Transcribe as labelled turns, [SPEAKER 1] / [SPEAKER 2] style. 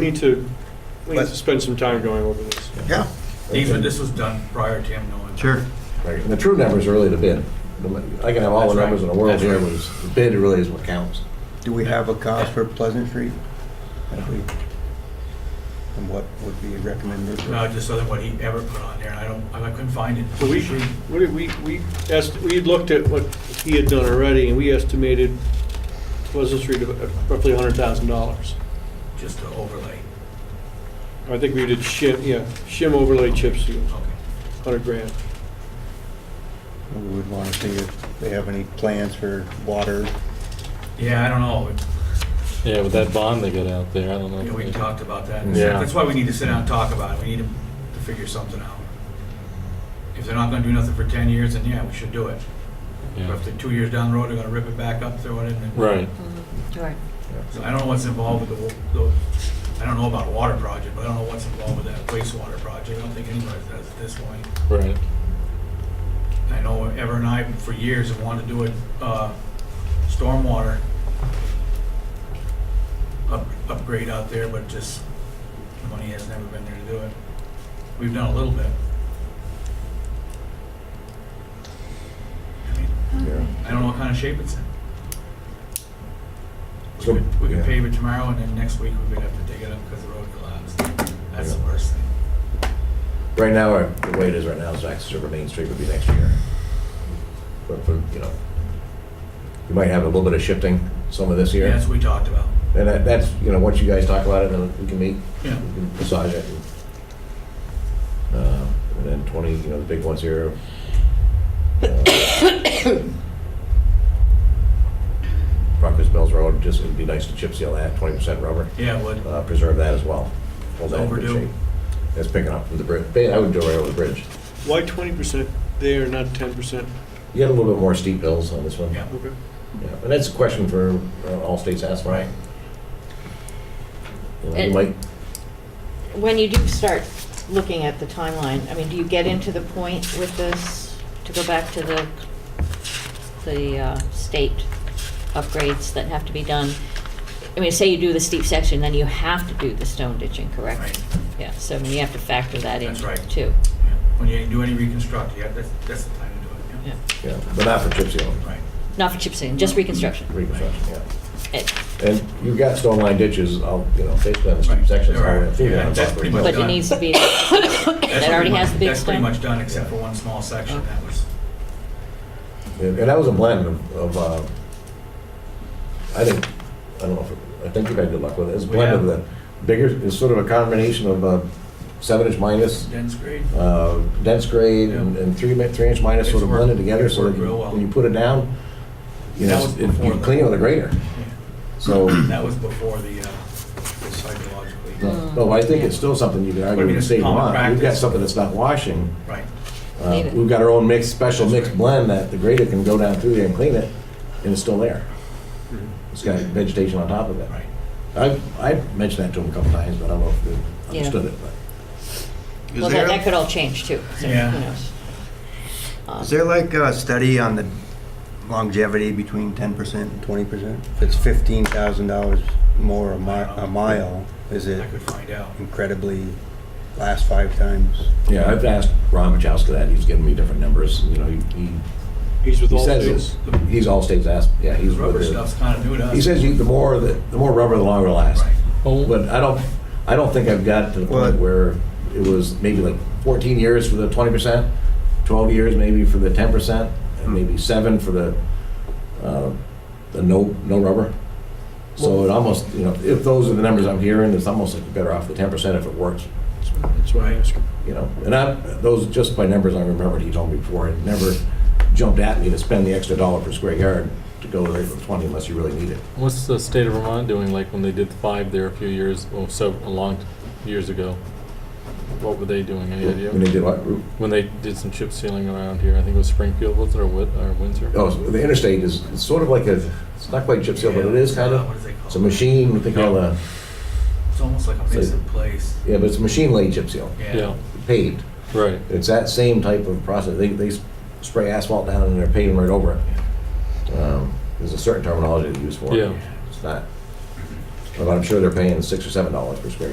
[SPEAKER 1] We need to, we need
[SPEAKER 2] But-
[SPEAKER 1] to spend some time going over this.
[SPEAKER 2] Yeah.
[SPEAKER 3] These, were- this was done prior to him knowing.
[SPEAKER 2] Sure.
[SPEAKER 4] Right, and the true numbers are really the bid. I can have all
[SPEAKER 3] That's
[SPEAKER 4] the
[SPEAKER 3] right.
[SPEAKER 4] numbers in the world
[SPEAKER 3] That's
[SPEAKER 4] here,
[SPEAKER 3] right.
[SPEAKER 4] but it's- the bid really is what counts.
[SPEAKER 2] Do we have a cost for Pleasant Street? If we- And what would be recommended?
[SPEAKER 3] No, just other what he ever put on there, and I don't, I couldn't find it.
[SPEAKER 1] So we, what did we, we asked, we had looked at what he had done already, and we estimated Pleasant Street of roughly hundred thousand dollars.
[SPEAKER 3] Just to overlay,
[SPEAKER 1] I think we did shim, yeah, shim overlay chip seal,
[SPEAKER 3] okay.
[SPEAKER 1] hundred grand.
[SPEAKER 2] We would want to see if they have any plans for water.
[SPEAKER 3] Yeah, I don't know,
[SPEAKER 5] Yeah, with that bond they got out there, I don't know.
[SPEAKER 3] You know, we talked about that.
[SPEAKER 5] Yeah.
[SPEAKER 3] That's why we need to sit down and talk about it, we need to to figure something out. If they're not gonna do nothing for ten years, then yeah, we should do it. But
[SPEAKER 5] Yeah.
[SPEAKER 3] if they're two years down the road, they're gonna rip it back up, throw it in. and-
[SPEAKER 5] Right.
[SPEAKER 6] Right.
[SPEAKER 3] So I don't know what's involved with the, wa- the, I don't know about a water project, but I don't know what's involved with that wastewater project, I don't think anybody does at this point.
[SPEAKER 5] Right.
[SPEAKER 3] I know Ever and I, for years, have wanted to do it, uh, stormwater up- upgrade out there, but just, the money has never been there to do it. We've done a little bit. I mean, I don't know what kind of shape it's in.
[SPEAKER 4] So-
[SPEAKER 3] We could
[SPEAKER 4] yeah.
[SPEAKER 3] pave it tomorrow, and then next week, we could have to dig it up because the road collapsed. That's the worst thing.
[SPEAKER 4] Right now, our- the way it is right now, is access over Main Street would be next year. But for, you know, you might have a little bit of shifting some of this
[SPEAKER 3] Yeah,
[SPEAKER 4] year.
[SPEAKER 3] That's what we talked about.
[SPEAKER 4] And that- that's, you know, once you guys talk about it, then we can meet,
[SPEAKER 3] Yeah,
[SPEAKER 4] we can massage it. and, uh, And then 20, you know, the big ones here. uh, Proctor's Mills Road, just, it'd be nice to chip seal that, 20% rubber.
[SPEAKER 3] yeah, it would.
[SPEAKER 4] uh, preserve that as well. Hold that in good
[SPEAKER 3] Overdue.
[SPEAKER 4] shape. That's picking up from the bridge. I would do it right over the bridge.
[SPEAKER 1] Why twenty percent there, not ten percent?
[SPEAKER 4] You got a little bit more steep hills on this one.
[SPEAKER 3] Yeah.
[SPEAKER 1] Okay.
[SPEAKER 4] Yeah, And that's a question for uh, all states asphalt.
[SPEAKER 3] Right.
[SPEAKER 4] You know, you
[SPEAKER 6] And-
[SPEAKER 4] might,
[SPEAKER 6] When you do start looking at the timeline, I mean, do you get into the point with this, to go back to the, the uh, state upgrades that have to be done? I mean, say you do the steep section, then you have to do the stone ditching, correct?
[SPEAKER 3] Right.
[SPEAKER 6] Yeah, so I mean, you have to factor that in
[SPEAKER 3] That's right.
[SPEAKER 6] too.
[SPEAKER 3] Yeah. When you do any reconstruct, yeah, that's, that's the time to do it, yeah.
[SPEAKER 6] Yeah.
[SPEAKER 4] yeah, but not for chip seal,
[SPEAKER 3] Right.
[SPEAKER 6] Not for chip sealing, just reconstruction.
[SPEAKER 4] reconstruction, yeah.
[SPEAKER 6] Eh,
[SPEAKER 4] And you've got stone line ditches, I'll, you know, basically on the steep
[SPEAKER 3] Right,
[SPEAKER 4] sections.
[SPEAKER 3] there
[SPEAKER 4] all the way
[SPEAKER 3] are.
[SPEAKER 4] through
[SPEAKER 3] Yeah,
[SPEAKER 4] there on
[SPEAKER 3] that's
[SPEAKER 4] Proctor's
[SPEAKER 3] pretty
[SPEAKER 4] Mills.
[SPEAKER 3] much
[SPEAKER 6] But it
[SPEAKER 3] done.
[SPEAKER 6] needs to be,
[SPEAKER 3] That's
[SPEAKER 6] that already
[SPEAKER 3] pretty
[SPEAKER 6] has
[SPEAKER 3] much-
[SPEAKER 6] the big
[SPEAKER 3] That's pretty
[SPEAKER 6] stone.
[SPEAKER 3] much done, except for one small section, that was,
[SPEAKER 4] And and that was a blend of, of, uh, I think, I don't know, if it- I think you've had good luck with it. It's a blend of
[SPEAKER 3] Yeah.
[SPEAKER 4] the bigger, it's sort of a combination of uh, seven inch minus,
[SPEAKER 3] dense grade.
[SPEAKER 4] uh, dense grade and and three, mi- three inch minus
[SPEAKER 3] It's
[SPEAKER 4] sort of blended
[SPEAKER 3] worked-
[SPEAKER 4] together
[SPEAKER 3] it's
[SPEAKER 4] so that
[SPEAKER 3] worked
[SPEAKER 4] you-
[SPEAKER 3] real well.
[SPEAKER 4] when you put it down, you
[SPEAKER 3] That
[SPEAKER 4] know,
[SPEAKER 3] was
[SPEAKER 4] it-
[SPEAKER 3] before
[SPEAKER 4] you
[SPEAKER 3] the-
[SPEAKER 4] clean it with a grater.
[SPEAKER 3] Yeah.
[SPEAKER 4] So,
[SPEAKER 3] That was before the, uh, the psychologically.
[SPEAKER 4] no, no, I think it's still something you can argue
[SPEAKER 3] I mean,
[SPEAKER 4] in the
[SPEAKER 3] it's
[SPEAKER 4] state of
[SPEAKER 3] common
[SPEAKER 4] Vermont. We've got
[SPEAKER 3] practice.
[SPEAKER 4] something that's not washing.
[SPEAKER 3] Right,
[SPEAKER 4] Uh,
[SPEAKER 6] Need it.
[SPEAKER 4] We've got our own mixed, special
[SPEAKER 3] That's
[SPEAKER 4] mixed
[SPEAKER 3] right.
[SPEAKER 4] blend that the grader can go down through there and clean it, and it's still there.
[SPEAKER 3] Mm-hmm.
[SPEAKER 4] It's got vegetation on top of it.
[SPEAKER 3] right.
[SPEAKER 4] I, I mentioned that to him a couple times, but I don't know if they
[SPEAKER 6] Yeah.
[SPEAKER 4] understood it, but.
[SPEAKER 2] Is
[SPEAKER 6] well, that, that could
[SPEAKER 2] there,
[SPEAKER 6] all change too, so who
[SPEAKER 3] Yeah.
[SPEAKER 6] knows? Um,
[SPEAKER 2] is there like a study on the longevity between 10% and 20%? If it's $15,000 more a mi- a mile, is
[SPEAKER 3] I
[SPEAKER 2] it
[SPEAKER 3] could find out.
[SPEAKER 2] incredibly last five times?
[SPEAKER 4] Yeah, I've asked Ron Wachowski that, he's given me different numbers, you know, he, he-
[SPEAKER 1] He's with
[SPEAKER 4] he
[SPEAKER 1] all
[SPEAKER 4] says,
[SPEAKER 1] states.
[SPEAKER 4] it's- he's all states asked, yeah,
[SPEAKER 3] The
[SPEAKER 4] he's
[SPEAKER 3] rubber
[SPEAKER 4] with
[SPEAKER 3] stuff's
[SPEAKER 4] the,
[SPEAKER 3] kind of new to us.
[SPEAKER 4] he says you, the more, the, the more rubber, the longer it'll last.
[SPEAKER 3] Right.
[SPEAKER 5] Well,
[SPEAKER 4] But I don't, I don't think I've got to the
[SPEAKER 2] Well-
[SPEAKER 4] point where it was maybe like fourteen years for the twenty percent, twelve years maybe for the ten percent, and maybe seven for the, uh, the no, no rubber. So it almost, you know, if those are the numbers I'm hearing, it's almost like you're better off the ten percent if it works,
[SPEAKER 1] That's why- That's why I asked.
[SPEAKER 4] you know. And I, those, just by numbers I remembered he told me before, it never jumped at me to spend the extra dollar per square yard to go there for twenty unless you really need it.
[SPEAKER 5] what's the state of Vermont doing, like when they did five there a few years, well, so, a long t- years ago? What were they doing, any
[SPEAKER 4] When they
[SPEAKER 5] idea?
[SPEAKER 4] did what, Ru-
[SPEAKER 5] When they did some chip sealing around here, I think it was Springfield, was it, or Wit, or Windsor?
[SPEAKER 4] Oh, so the interstate is it's sort of like a, it's not quite chip seal, but it is kind
[SPEAKER 3] Yeah, What
[SPEAKER 4] of,
[SPEAKER 3] is it called?
[SPEAKER 4] it's a machine, what they call a,
[SPEAKER 3] It's almost like a
[SPEAKER 4] It's like-
[SPEAKER 3] mix in place.
[SPEAKER 4] yeah, but it's a machine laid chip seal,
[SPEAKER 3] Yeah.
[SPEAKER 5] Yeah,
[SPEAKER 4] paved.
[SPEAKER 5] right,
[SPEAKER 4] It's that same type of process. They, they spray asphalt down and they're paving right over it. Um, There's a certain terminology they use for it.
[SPEAKER 5] Yeah.
[SPEAKER 4] It's not, but I'm sure they're paying six or seven dollars per square